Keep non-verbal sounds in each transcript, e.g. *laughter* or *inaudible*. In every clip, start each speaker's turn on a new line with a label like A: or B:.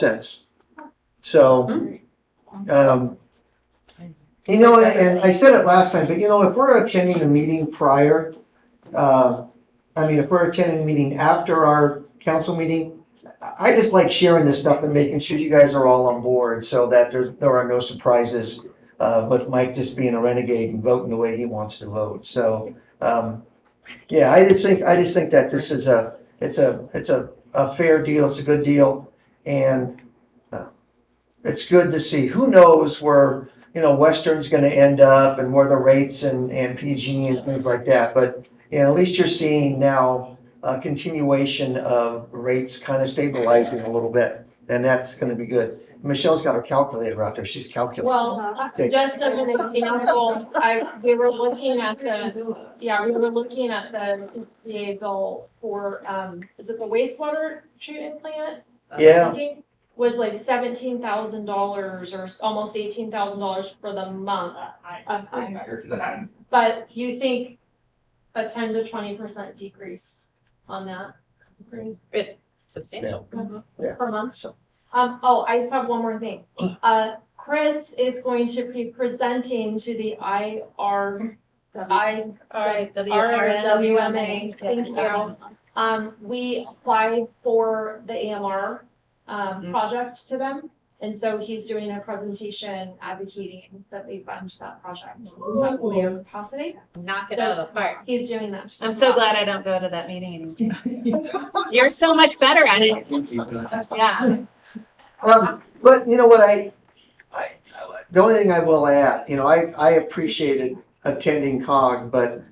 A: sense. So, um, you know, and I said it last time, but you know, if we're attending a meeting prior, uh, I mean, if we're attending a meeting after our council meeting, I I just like sharing this stuff and making sure you guys are all on board so that there, there are no surprises uh, with Mike just being a renegade and voting the way he wants to vote. So, um, yeah, I just think, I just think that this is a, it's a, it's a, a fair deal, it's a good deal. And uh, it's good to see, who knows where, you know, Western's gonna end up and where the rates and, and PG and things like that. But, you know, at least you're seeing now a continuation of rates kind of stabilizing a little bit. And that's gonna be good. Michelle's got her calculator out there, she's calculating.
B: Well, uh,
A: Okay.
B: just as an example, I, we were looking at the, yeah, we were looking at the CPA bill for, um, is it the wastewater treatment plant?
C: Um,
A: Yeah.
B: Was like seventeen thousand dollars or s- almost eighteen thousand dollars for the month.
C: um,
B: of higher. But you think a ten to twenty percent decrease on that?
C: It's substantial.
B: per month.
A: So-
B: Um, oh, I just have one more thing. Uh, Chris is going to be presenting to the I R,
C: Uh-huh.
B: I
C: Alright,
B: RWMA, thank you. Um, we applied for the AMR, um,
C: Mhm.
B: project to them. And so he's doing a presentation advocating that we fund that project. Is that clear, possibly?
C: Knock it out of the park.
B: He's doing that.
C: I'm so glad I don't go to that meeting anymore. You're so much better at it. Yeah.
A: Um, but you know what, I, I, the only thing I will add, you know, I, I appreciated attending COG, but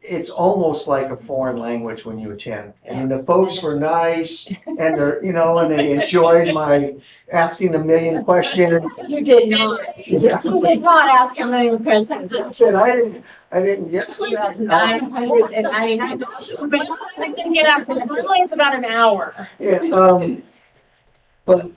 A: it's almost like a foreign language when you attend. And the folks were nice and they're, you know, and they enjoyed my asking a million questions. *laughs*
C: You did not.
A: Yeah,
C: You did not ask a million *laughs* questions.
A: I said, I didn't, I didn't, yes.
C: Nine hundred and ninety-nine. But you can get out, because online's about an hour.
A: Yeah, um, but,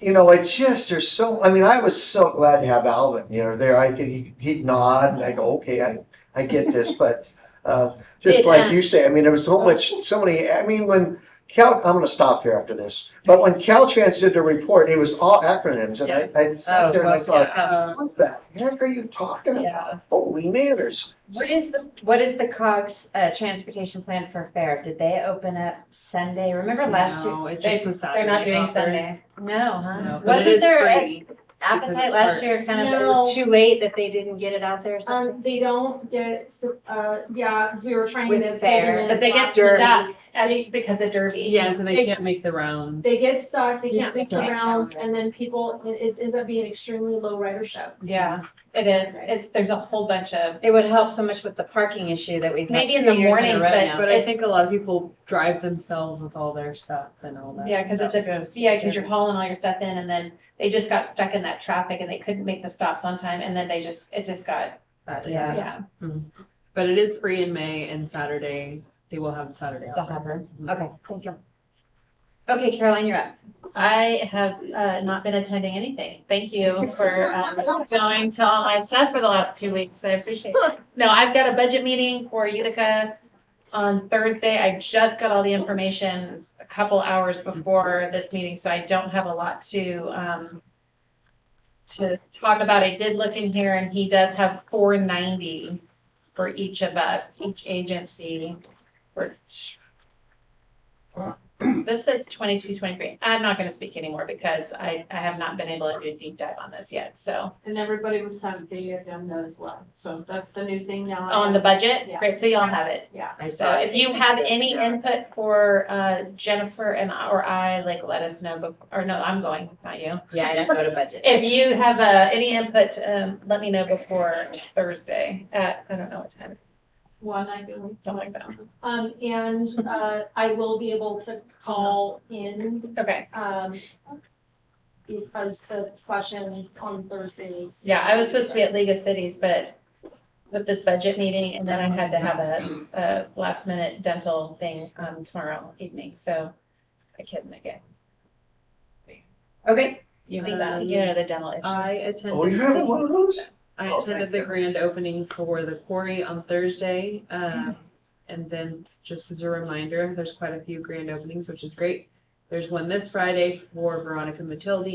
A: you know, I just, there's so, I mean, I was so glad to have Alvin, you know, there, I could, he- he'd nod, and I go, okay, I, I get this, but, uh, just like you say, I mean, there was so much, so many, I mean, when Cal, I'm gonna stop here after this, but when Caltrans did the report, it was all acronyms, and I, I sat there and I thought,
C: Uh,
A: what the heck are you talking
D: Oh, Yeah.
A: about? Holy manners.
D: What is the, what is the COGS, uh, transportation plan for fair? Did they open up Sunday? Remember last year?
E: No, it's
C: They-
E: just the Saturday.
C: They're not doing
E: offer.
C: Sunday.
D: No,
E: No,
D: huh?
E: but it
D: Wasn't
E: is
D: there an
E: free.
D: appetite
E: it's
D: last
E: part-
D: year, kind of, it was
B: No.
D: too late that they didn't get it out there or something?
B: Um, they don't get, su- uh, yeah, 'cause we were trying to.
D: With
B: fit
D: fair,
B: them in
C: But they
B: a
C: get
B: box.
D: Derby.
C: stuck at it because of Derby.
E: Yeah, so
B: They-
E: they can't make the rounds.
B: They get stuck, they can't
A: It's
B: make the
A: stuck.
B: rounds, and then people, it, it ends up being extremely low ridership.
C: Yeah, it is. It's, there's a whole bunch of,
D: It would help so much with the parking issue that we've had
C: Um, Maybe
D: two
C: in the
D: years in a
C: mornings,
D: row
C: but-
D: now.
E: But I think a lot of people drive themselves with all their stuff and all that.
C: yeah, because it's
E: stuff.
C: a, yeah, because you're hauling all your stuff in and then they just got stuck in that traffic and they couldn't make the stops on time and then they just, it just got,
D: Yeah.
C: yeah.
E: But it is free in May and Saturday, they will have Saturday
D: The
E: offer.
D: hopper. Okay, thank you. Okay, Caroline, you're up.
C: I have uh, not been attending anything. Thank you for um, going to all my stuff for the last two weeks. I appreciate it. *laughs* No, I've got a budget meeting for Utica on Thursday. I just got all the information a couple hours before this meeting, so I don't have a lot to um, to talk about. I did look in here, and he does have four ninety for each of us, each agency. For this says 22, 23. I'm not going to speak anymore because I, I have not been able to do a deep dive on this yet. So
F: And everybody was sent the agenda as well, so that's the new thing now.
C: on the budget,
F: Yeah.
C: great. So y'all have it.
F: Yeah.
E: I
C: So if you have any input for uh, Jennifer and or I, like let us know. bef- Or no, I'm going, not you.
D: Yeah, I don't go to budget.
C: If you have uh, any input, um, let me know before Thursday at I don't know what time,
F: One, I do.
C: something like that.
B: Um, and, uh, I will be able to call in,
C: Okay.
B: um, because the session on Thursdays.
C: Yeah, I was supposed to be at League of Cities, but with this budget meeting, and then I had to have a, a last minute dental thing um, tomorrow evening. So I couldn't make it.
D: Okay,
C: You know,
D: Thank
C: the-
E: you.
C: you know the dental issue.
E: *laughs* I
A: Oh, you having one
E: attended,
A: of those?
E: I
A: Oh,
E: attended
A: thank
E: the
A: you.
E: grand opening for the quarry on Thursday. Um, and then just as a reminder, there's quite a few grand openings, which is great. There's one this Friday for Veronica Matilde